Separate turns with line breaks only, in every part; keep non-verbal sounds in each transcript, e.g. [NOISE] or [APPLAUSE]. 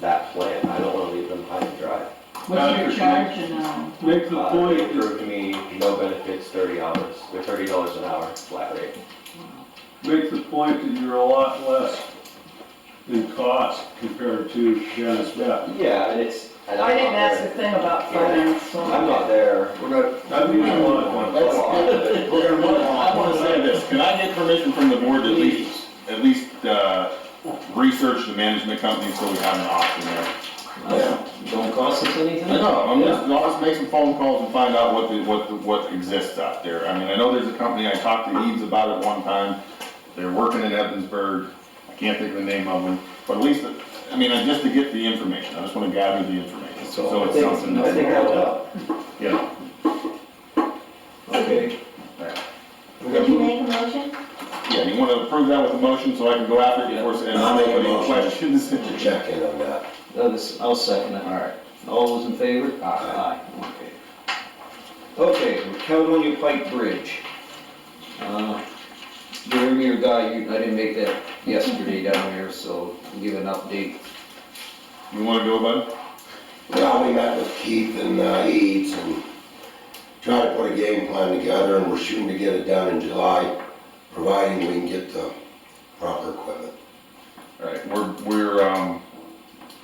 that plan, I don't wanna leave them high and dry.
What's your charge and, um,
Make the
Uh,
point,
They
that-
approved me no benefits, thirty hours, or thirty dollars an hour, flat rate.
make the point that you're a lot less in cost compared to Janice Beck.
Yeah, and it's. and I'm
I didn't
not
ask a
there.
thing about finance, so.
I'm not there.
We're not,
I mean, a lot.
let's, we're gonna move
I
on.
want to say this, can I get permission from the board to at least, at least, uh, research the management company so we have an option there?
Yeah.
Don't cost us anything?
No, I'm just, I'll just make some phone calls and find out what, the- what, the- what exists out there. I mean, I know there's a company, I talked to Eads about it one time, they're working in Evansburg, I can't think of the name of them, but at least, I mean, I- just to get the information, I just want to gather the information, so it's something
I think I
that's,
will help.
you know.
Okay. We're
Did
gonna
you
move,
make a motion?
Yeah, you want to approve that with a motion so I can go after it before, and I'll make any questions. [LAUGHS]
to check in on that.
Douglas, I'll second
All
it.
right.
All those in favor?
Aye.
Okay.
Okay, Caledonia Pike Bridge.
Uh, Jeremy or Guy, you, I didn't make that yesterday down there, so give an update.
You wanna go, bud?
Yeah, we met with Keith and uh, Eads and tried to put a game plan together, and we're shooting to get it done in July, providing we can get the proper equipment.
Alright, we're, we're, um,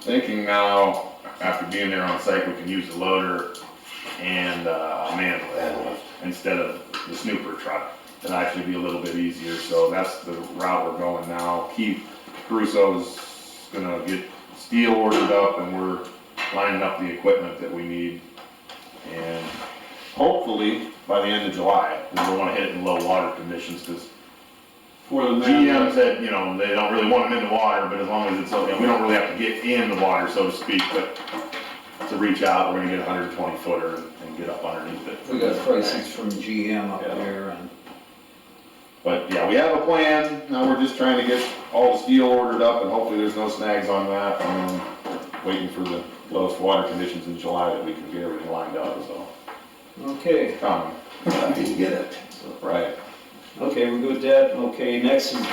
thinking now, after being there on site, we can use the loader and, uh,
Manlift.
manlift instead of the snooper truck. It'll actually be a little bit easier, so that's the route we're going now. Keith Caruso's gonna get steel ordered up and we're lining up the equipment that we need. And hopefully, by the end of July, we don't wanna hit it in low water conditions, cause
for the
GM
man.
said, you know, they don't really want them in the water, but as long as it's, you know, we don't really have to get in the water, so to speak, but to reach out, we're gonna get a hundred and twenty footer and- and get up underneath it.
We got prices from GM up
Yeah.
there and
But yeah, we have a plan, now we're just trying to get all the steel ordered up and hopefully there's no snags on that. Um, Waiting for the lowest water conditions in July that we can get everything lined up, so.
Okay,
Coming,
I didn't get it.
right.
okay, we're good with that. Okay, next is the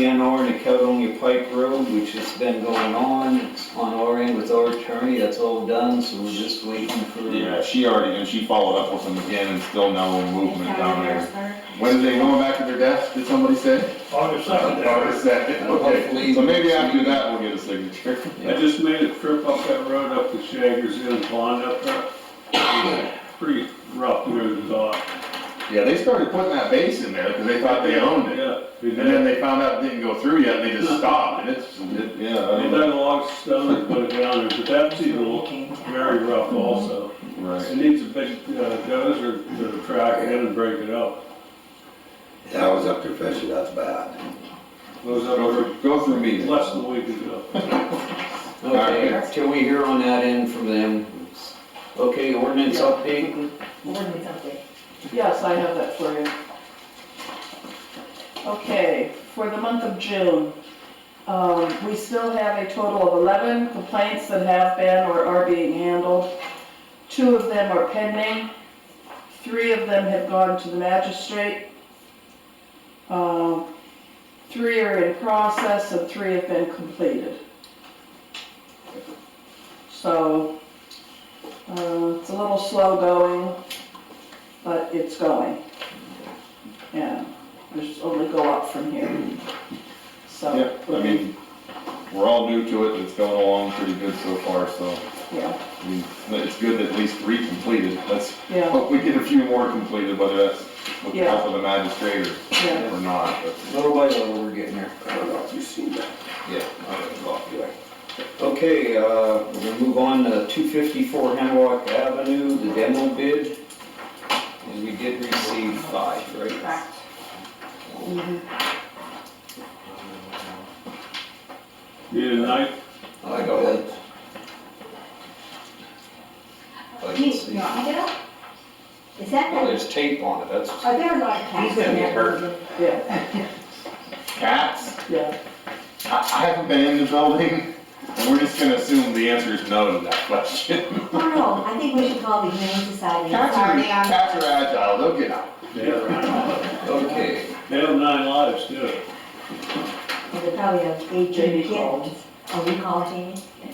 DCNR and the Caledonia Pike Road, which has been going on. It's on our end with our attorney, that's all done, so we're just waiting for.
Yeah, she already, and she followed up with them again and still no movement down there.
Harrisburg.
When are they going back to their desk, did somebody say?
August second.
August second, okay. So maybe after that, we'll get a signature.
I just made a trip up that road up to Shaggers Inn Pond up there. Pretty rough near the dock.
[LAUGHS] Yeah, they started putting that base in there because they thought they owned it.
Yeah. they
And
did.
then they found out it didn't go through yet, and they just stopped, and it's, it- yeah. I
They
don't know.
dug a log stone and put it down there, but that's even
Came down.
very rough also. It
Right.
needs a big uh, dozer to track it in and break it up.
Yeah, I was up there fishing, that's bad.
Those
Go
up
through, go through
there
me then.
less than a week ago.
Okay, till we hear on that end from them. Okay, ordinance update?
Ordinance update.
Yes, I have that for you. Okay, for the month of June, um, we still have a total of 11 complaints that have been or are being handled. Two of them are pending, three of them have gone to the magistrate. Um, Three are in process and three have been completed. So, uh, it's a little slow going but it's going. Yeah, there's only go up from here. So.
Yeah, I mean, we're all new to it, it's going along pretty good so far, so,
Yeah,
I mean, it's good that at least three completed. Let's
yeah,
hope we get a few more completed, whether that's with the help of the magistrate or,
yeah.
or not, but.
Little by little, we're getting there.
I don't know if you've seen that.
Yeah.
Anyway.
Okay, uh, we're gonna move on to two fifty-four Hemlock Avenue, the demo bid. And we did receive five, right?
Correct.
mhm.
Need a knife?
I got it. I can
Geez,
see.
no, I got it. Is that,
Well,
the-
there's tape on it, that's,
are there a lot of cats in that building?
Yeah,
Cats?
yeah.
I, I haven't been in the building, and we're just gonna assume the answer is no to that question.
Oh, no, I think we should call the Humane Society.
Cats are,
Sorry, I'm-
cats are agile, they'll get out.
Yeah.
okay.
They have nine lives too.
They probably have eight
Jamie
kittens.
called.
Oh, you called Jamie?